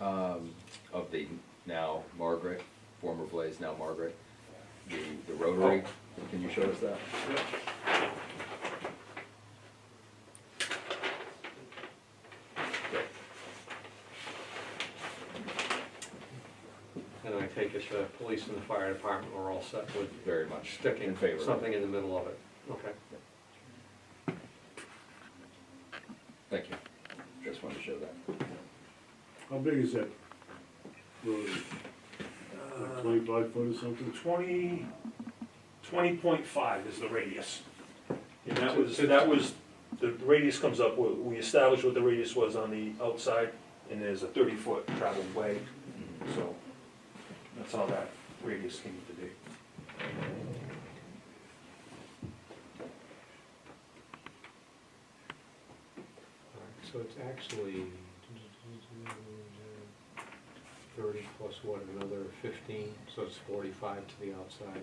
um, of the now Margaret, former Blaze, now Margaret, the, the rotary, Oh. can you show us that? Great. And I take it the police and the fire department are all set with Very much. sticking In favor. of it. something in the middle of it, okay? Thank you. Just wanted to show that. How big is that? road? Like Twenty-five foot or something? Uh, Twenty, twenty point five is the radius. And that So- was, so- that was, the radius comes up, we- we established what the radius was on the outside, and there's a thirty foot traveled way, Mm-hmm. so that's how that radius came to be. Alright, So it's actually thirty plus what, another fifteen, so it's forty-five to the outside.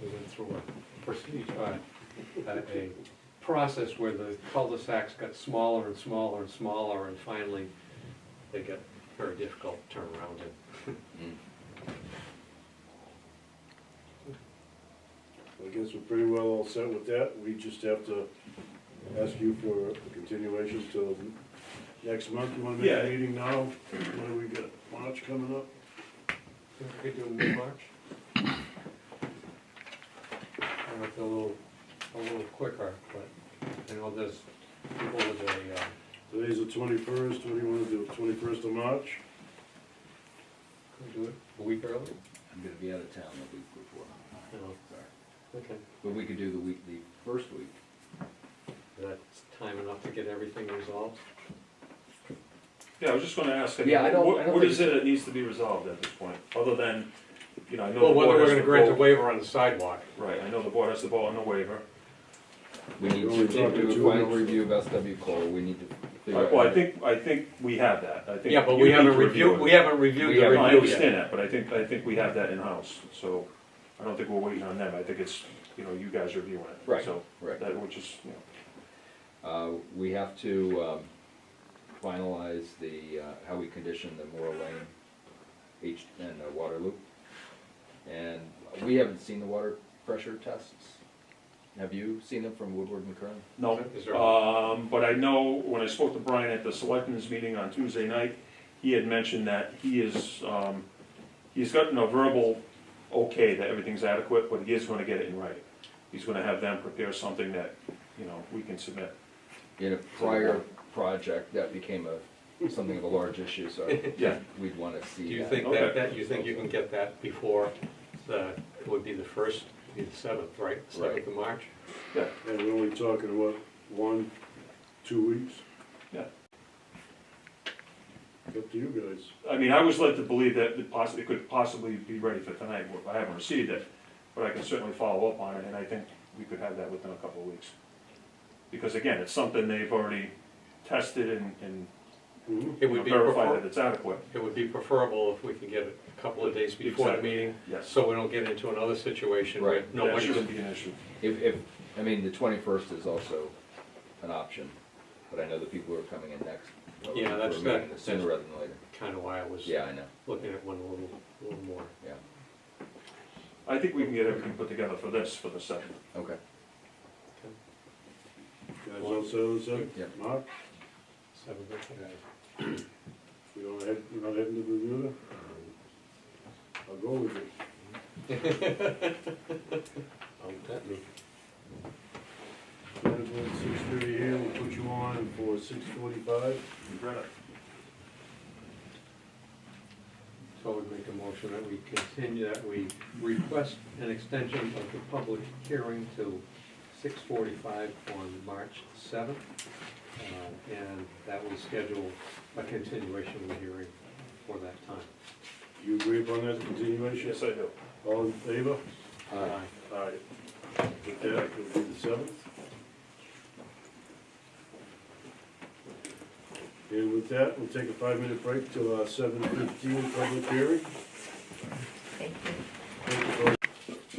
We went through a procedure, uh, a a process where the cul-de-sacs got smaller and smaller and smaller, and finally they get very difficult to turn around in. Mm. I guess we're pretty well all set with that. We just have to ask you for a continuation till next month. You wanna make Yeah. a meeting now? What do we got? March coming up? Think we could do mid-March? I know it's a little, a little quicker, but I know there's people with a, uh, Today's the twenty-first. What do you wanna do? Twenty-first of March? could we do it a week early? I'm gonna be out of town the week before. No. Sorry. Okay. But we could do the week, the first week. That's time enough to get everything resolved? Yeah, I was just gonna ask, I mean, Yeah, I don't- I what, don't what think is it that needs to be resolved at this point, other than, you know, I know the Well, whether board we're has gonna to grant a vote- waiver on the sidewalk. Right, I know the board has to vote on the waiver. We need We're only to do talking a two final weeks. review of SW Cole, we need to. figure out- Well, I think, I think we have that, I think. Yeah, but you we need to haven't review reviewed, it. we haven't reviewed We the haven't- I review yet. understand that, but I think, I think we have that in-house, so I don't think we're waiting on them, I think it's, you know, you guys reviewing it. Right, So, right. that, which is, you know, Uh, we have to, um, finalize the, uh, how we condition the Moore Lane H, and the water loop. And we haven't seen the water pressure tests. Have you seen them from Woodward and Kern? no. Is there- Um, but I know, when I spoke to Brian at the selectmen's meeting on Tuesday night, he had mentioned that he is, um, he's gotten a verbal okay that everything's adequate, but he is gonna get it in writing. He's gonna have them prepare something that, you know, we can submit. In a prior project, that became a, something of a large issue, so Yeah. we'd wanna see Do that. you think Okay. that, that, you think you can get that before the, it would be the first, be the seventh, right? Seventh of March? Yeah, And we're only talking, what, one, two weeks? yeah. Up to you guys. I mean, I was led to believe that it possibly, it could possibly be ready for tonight, but I haven't received it. But I can certainly follow up on it, and I think we could have that within a couple of weeks. Because again, it's something they've already tested and, and Mhm. It you know, would be verified prefer- that it's adequate. It would be preferable if we can get it a couple of days before the Exactly. meeting, Yes. so we don't get into another situation where Right. That nobody shouldn't can. be an issue. If, if, I mean, the twenty-first is also an option, but I know the people who are coming in next. are Yeah, that's meeting good. Sooner rather than later. Kind of why I was Yeah, I know, looking at one a little, a little more. yeah, I think we can get everything put together for this, for the second. okay. Guys all set on the second? Yep. March? Seventh, okay. We don't head, we're not heading to Bermuda? I'll go with you. Don't tempt me. Six thirty here, we'll put you on for six forty-five. So I would make a motion that we continue, that we request an extension of the public hearing to six forty-five on March seventh. uh, And that will schedule a continuation of the hearing for that time. You agree upon that continuation? Yes, I do. All in favor? Aye. Aye. With that, it'll be the seventh. And with that, we'll take a five-minute break till our seven fifteen public hearing. Thank you.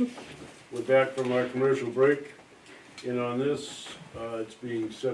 folks. We're back from our commercial break, and on this, uh, it's being seven